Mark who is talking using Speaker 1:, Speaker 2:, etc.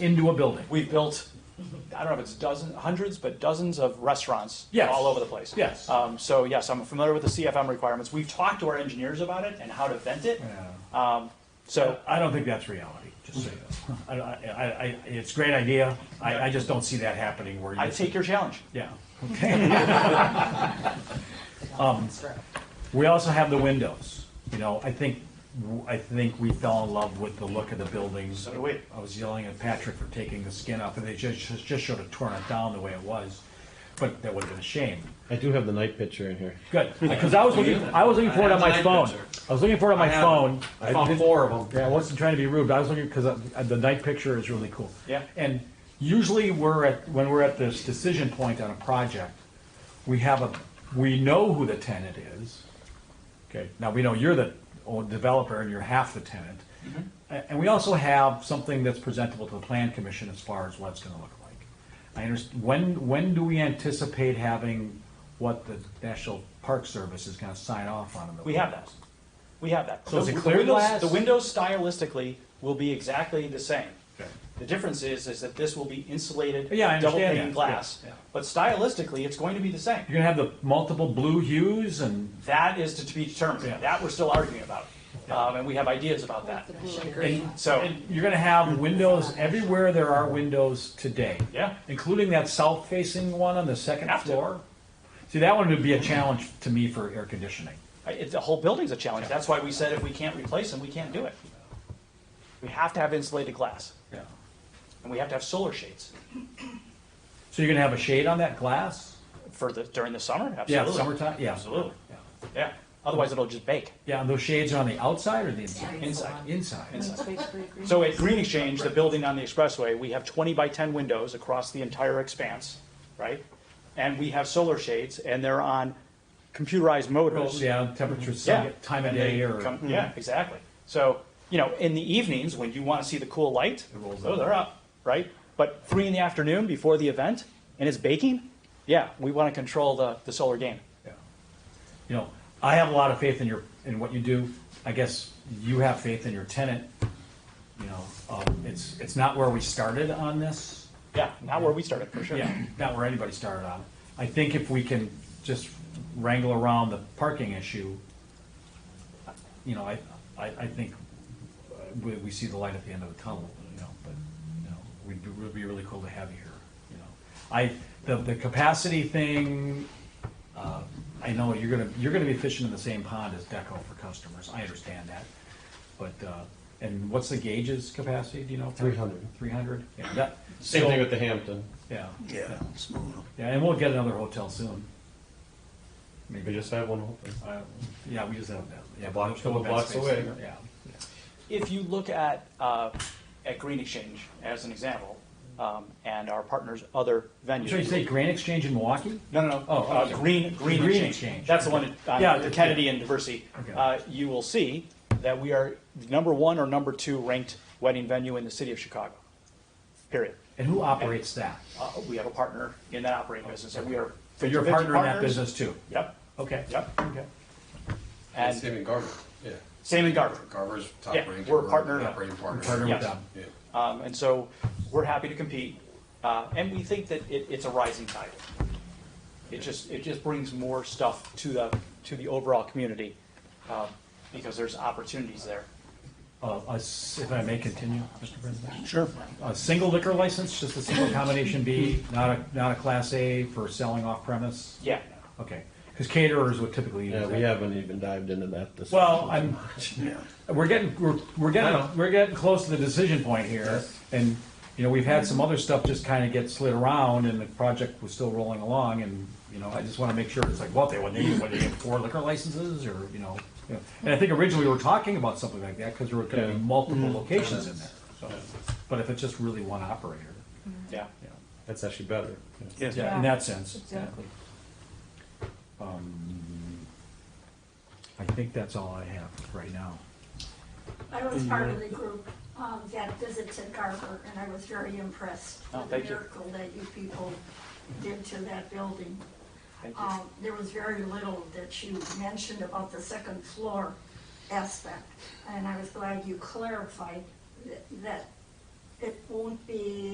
Speaker 1: into a building.
Speaker 2: We've built, I don't know if it's dozens, hundreds, but dozens of restaurants
Speaker 1: Yes.
Speaker 2: all over the place.
Speaker 1: Yes.
Speaker 2: Um, so yes, I'm familiar with the CFM requirements. We've talked to our engineers about it and how to vent it. Um, so
Speaker 1: Uh, I don't think that's reality, just say that. I, I, I, I- it's a great idea, I, I just don't see that happening where you.
Speaker 2: I take your challenge.
Speaker 1: Yeah, okay. Um, We also have the windows, you know, I think, I think we fell in love with the look of the buildings.
Speaker 2: So do we.
Speaker 1: I was yelling at Patrick for taking the skin off, and they just, just- just should have torn it down the way it was, but that would have been a shame.
Speaker 3: I do have the night picture in here.
Speaker 1: Good, because I was looking, I was looking for it on my phone. I was looking for it on my phone.
Speaker 3: I found four of them.
Speaker 1: Yeah, I wasn't trying to be rude, but I was looking, because the night picture is really cool.
Speaker 2: Yeah.
Speaker 1: And usually we're at, when we're at this decision point on a project, we have a, we know who the tenant is. Okay, now we know you're the own developer and you're half the tenant.
Speaker 2: Mm-hmm.
Speaker 1: A- And we also have something that's presentable to the plan commission as far as what it's gonna look like. I understand, when, when do we anticipate having what the National Park Service is gonna sign off on? in the
Speaker 2: We have
Speaker 1: windows?
Speaker 2: that. We have that.
Speaker 1: So is
Speaker 2: The-
Speaker 1: it
Speaker 2: the
Speaker 1: clear
Speaker 2: windows-
Speaker 1: glass?
Speaker 2: The windows stylistically will be exactly the same.
Speaker 1: Okay.
Speaker 2: The difference is, is that this will be insulated,
Speaker 1: Yeah, I
Speaker 2: double
Speaker 1: understand
Speaker 2: pane
Speaker 1: that.
Speaker 2: glass.
Speaker 1: Yeah, yeah.
Speaker 2: But stylistically, it's going to be the same.
Speaker 1: You're gonna have the multiple blue hues and,
Speaker 2: That is to be determined.
Speaker 1: Yeah.
Speaker 2: That we're still arguing about. Um, and we have ideas about that.
Speaker 4: The blue and
Speaker 1: and
Speaker 4: green.
Speaker 2: So,
Speaker 1: and you're gonna have windows everywhere there are windows today.
Speaker 2: Yeah.
Speaker 1: Including that south-facing one on the second
Speaker 2: Have to.
Speaker 1: floor. See, that one would be a challenge to me for air conditioning.
Speaker 2: I- it- the whole building's a challenge. That's why we said if we can't replace them, we can't do it. We have to have insulated glass
Speaker 1: Yeah.
Speaker 2: and we have to have solar shades
Speaker 1: So you're gonna have a shade on that glass?
Speaker 2: for the, during the summer,
Speaker 1: Yeah,
Speaker 2: absolutely.
Speaker 1: summertime, yeah.
Speaker 2: Absolutely.
Speaker 1: Yeah.
Speaker 2: Yeah, otherwise it'll just bake.
Speaker 1: Yeah, and those shades are on the outside or the inside?
Speaker 2: Inside.
Speaker 1: Inside.
Speaker 4: It's basically a green.
Speaker 2: So at Green Exchange, the building on the expressway, we have 20 by 10 windows across the entire expanse, right? And we have solar shades, and they're on computerized
Speaker 1: Well,
Speaker 2: motors.
Speaker 1: Yeah, temperature, sun,
Speaker 2: Yeah.
Speaker 1: time of
Speaker 2: And they
Speaker 1: day or,
Speaker 2: come- Yeah, exactly. So, you know, in the evenings, when you want to see the cool light,
Speaker 1: rolls
Speaker 2: oh,
Speaker 1: up.
Speaker 2: they're up, right? But three in the afternoon before the event, and it's baking, yeah, we want to control the, the solar game.
Speaker 1: Yeah. you know, I have a lot of faith in your, in what you do. I guess you have faith in your tenant, you know, um, it's, it's not where we started on this.
Speaker 2: Yeah, not where we started, for sure.
Speaker 1: Yeah, not where anybody started on. I think if we can just wrangle around the parking issue, you know, I, I, I think uh, we, we see the light at the end of the tunnel, you know, but, you know, we'd, be- it would be really cool to have you here, you know. I, the, the capacity thing, uh, I know you're gonna, you're gonna be fishing in the same pond as Deco for customers, I understand that. But, uh, and what's the gauge's capacity, do you know?
Speaker 3: 300.
Speaker 1: Three hundred, yeah, that.
Speaker 3: Same
Speaker 1: so-
Speaker 3: thing with the Hampton.
Speaker 1: Yeah.
Speaker 5: Yeah, smooth.
Speaker 1: Yeah, and we'll get another hotel soon.
Speaker 3: We just have one open.
Speaker 1: Uh, Yeah, we just have that. Yeah,
Speaker 3: Block- couple blocks away.
Speaker 1: Yeah.
Speaker 2: If you look at, uh, at Green Exchange as an example, um, and our partners' other venues.
Speaker 1: So you say Grand Exchange in Milwaukee?
Speaker 2: No, no, no.
Speaker 1: Oh,
Speaker 2: Uh,
Speaker 1: okay.
Speaker 2: Green, Green
Speaker 1: Green
Speaker 2: Exchange.
Speaker 1: Exchange.
Speaker 2: That's the one at,
Speaker 1: Yeah,
Speaker 2: on the Kennedy and Diversity.
Speaker 1: Okay.
Speaker 2: Uh, you will see that we are number one or number two ranked wedding venue in the city of Chicago, period.
Speaker 1: And who operates that?
Speaker 2: Uh, we have a partner in that operating business, and we are
Speaker 1: So you're a
Speaker 2: 50-50
Speaker 1: partner in that
Speaker 2: partners.
Speaker 1: business too?
Speaker 2: Yep,
Speaker 1: Okay.
Speaker 2: yep.
Speaker 1: Okay.
Speaker 2: And
Speaker 6: Same in Garver, yeah.
Speaker 2: same in Garver.
Speaker 6: Garver's top
Speaker 2: Yeah,
Speaker 6: ranked.
Speaker 2: we're a partner.
Speaker 6: Operating partner.
Speaker 1: Partner with
Speaker 2: Yes.
Speaker 1: them.
Speaker 6: Yeah.
Speaker 2: Um, and so we're happy to compete, uh, and we think that it, it's a rising tide. It just it just brings more stuff to the to the overall community um, because there's opportunities there.
Speaker 1: Uh, a s- If I may continue, Mr. President?
Speaker 2: Sure.
Speaker 1: A single liquor license, just a single combination B, not a, not a class A for selling off premise?
Speaker 2: Yeah.
Speaker 1: Okay, because caterers would typically use
Speaker 3: Yeah,
Speaker 1: that.
Speaker 3: we haven't even dived into that this.
Speaker 1: Well, I'm, we're getting, we're, we're
Speaker 3: I know.
Speaker 1: getting, we're getting close to the decision point here.
Speaker 3: Yes.
Speaker 1: And, you know, we've had some other stuff just kind of get slid around and the project was still rolling along and, you know, I just want to make sure it's like, what, they want, they, what, they have four liquor licenses or, you know? yeah. And I think originally we were talking about something like that because there were going to be
Speaker 3: Yeah.
Speaker 1: multiple locations in there. So, But if it's just really one operator,
Speaker 2: Yeah.
Speaker 1: you know.
Speaker 3: That's actually better.
Speaker 5: Yes.
Speaker 1: Yeah, in
Speaker 4: Yeah,
Speaker 1: that sense. yeah.
Speaker 4: exactly.
Speaker 1: Um, I think that's all I have right now.
Speaker 7: I was part
Speaker 2: Mm-hmm.
Speaker 7: of the group um, that visited Garber, and I was very impressed
Speaker 2: Oh,
Speaker 7: with the
Speaker 2: thank you.
Speaker 7: miracle that you people did to that building.
Speaker 2: Thank you.
Speaker 7: Um, There was very little that you mentioned about the second floor aspect, and I was glad you clarified th- that it won't be